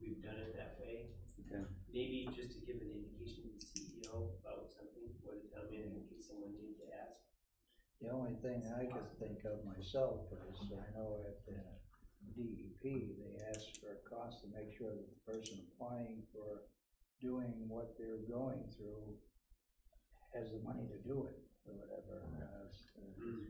we've done it that way. Okay. Maybe just to give an indication to the CEO about something, or the town manager, in case someone needs to ask. The only thing I could think of myself is, I know at the DEP, they ask for a cost to make sure that the person applying for doing what they're going through has the money to do it, or whatever. uh, s- uh, Mm-hmm.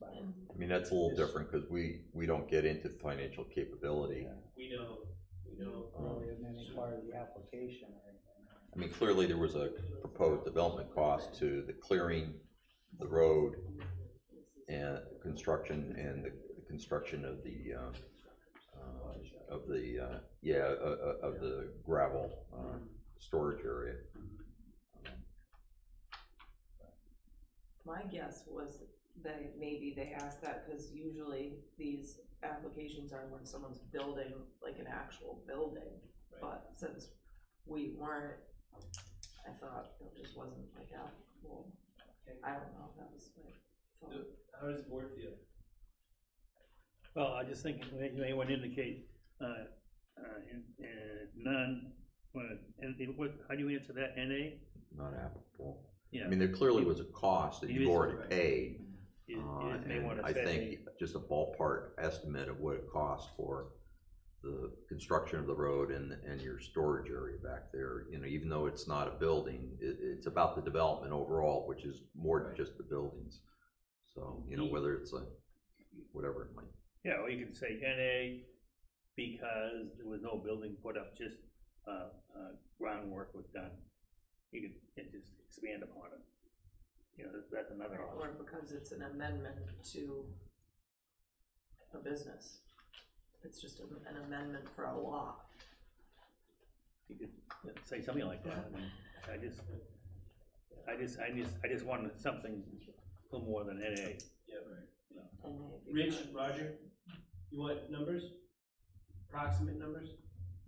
but, I mean, that's a little Yes. different, cause we, we don't get into financial capability. yeah, We don't, we don't, Really isn't any part of the application or anything. I mean, clearly there was a proposed development cost to the clearing, the road, and construction, and the the construction of the, uh, uh, of the, uh, yeah, uh, uh, of the gravel, uh, Mm-hmm. storage area. Um, My guess was that maybe they asked that because usually these applications are when someone's building, like an actual building. Right. But since we weren't, I thought it just wasn't like applicable. Okay. I don't know, that was my thought. how does the board feel? Well, I just think they, they would indicate, uh, uh, in- in none, what- and they- what, how do you answer that, NA? Not applicable. I Yeah, mean, there clearly was a cost that you've already paid. you Uh, you just may and wanna I say, think just a ballpark estimate of what it costs for the construction of the road and, and your storage area back there, you know, even though it's not a building, it, it's about the development overall, which is more than just the buildings. So, you know, whether it's a, whatever it might, yeah, or you can say NA because there was no building put up, just, uh, uh, groundwork was done. You could, and just expand upon it. You know, that's- that's another Or option. because it's an amendment to a business. It's just a- an amendment for a law. You could you know, say something like that, I mean, I just, I just, I just, I just wanted something a little more than NA. Yeah, right. and they- Rich, Roger, you want numbers? Approximate numbers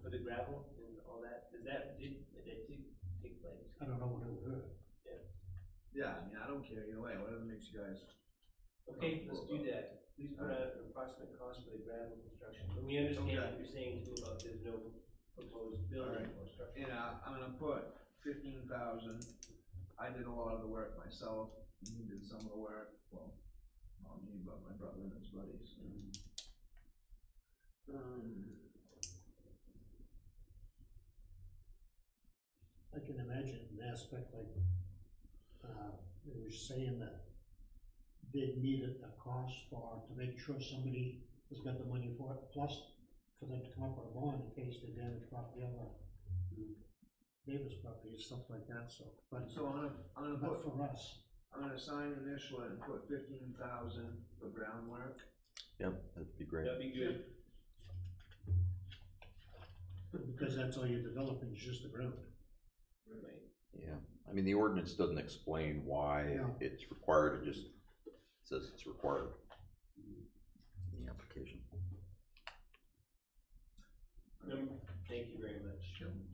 for the gravel and all that? Does that, did, that did take place? I don't know what it would hurt. Yeah, I mean, I don't care either way, whatever makes you guys. Okay, let's do that. Please put out an approximate cost for the gravel construction. And we understand what you're saying too about there's no proposed building or structure. And I, I'm gonna put fifteen thousand, I did a lot of the work myself, and he did some of the work, well, not me, but my brother and his buddies. Um, I can imagine an aspect like, uh, they were saying that they needed a cost for, to make sure somebody has got the money for it, plus for them to come up with a bond in case they damage property or neighbor's property and stuff like that, so, but, So I'm gonna, I'm gonna put but for us, I'm gonna sign initial it and put fifteen thousand for groundwork. yeah, that'd be great. That'd be good. because that's all you're developing is just the ground. Yeah, I mean, the ordinance doesn't explain why No. it's required, it just says it's required. in The application. Number, thank you very much.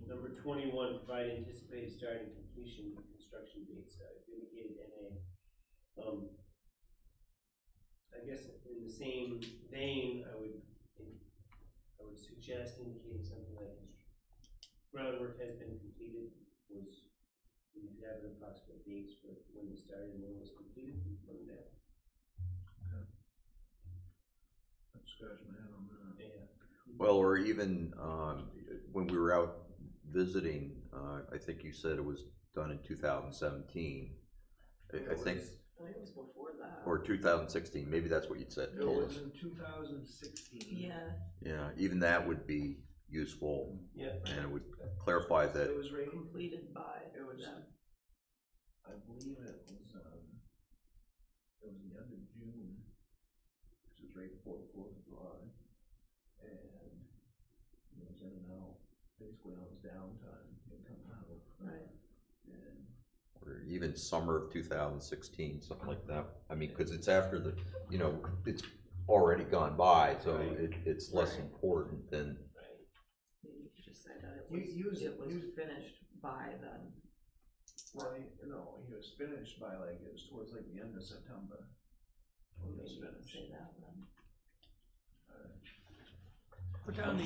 Number twenty-one, provide anticipated start and completion of construction dates, uh, indicated NA. Um, I guess in the same vein, I would, I would suggest indicating something like constr- groundwork has been completed, was, you could have an approximate dates for when it started and when it was completed, from there. I'm scratching my head on that. Yeah. Well, or even, um, when we were out visiting, uh, I think you said it was done in two thousand seventeen. I, I think, I think it was before that. or two thousand sixteen, maybe that's what you'd said, It told was us. in two thousand sixteen. Yeah, Yeah, even that would be useful, Yeah, and it would clarify It that, was rated, completed by it was, them. I believe it was, um, it was the end of June. Cause it was right before the fourth of July. And it was in and out, basically on his downtime, it come out. Right. And or even summer of two thousand sixteen, something like that. I mean, cause it's after the, you know, it's already gone by, so Right. it, it's less Right. important than, right. Maybe you could just say that it You- was, use it, it was use- finished by them. Well, he, no, he was finished by like, it was towards like the end of September. When it Maybe was you could finished. say that then. Put down the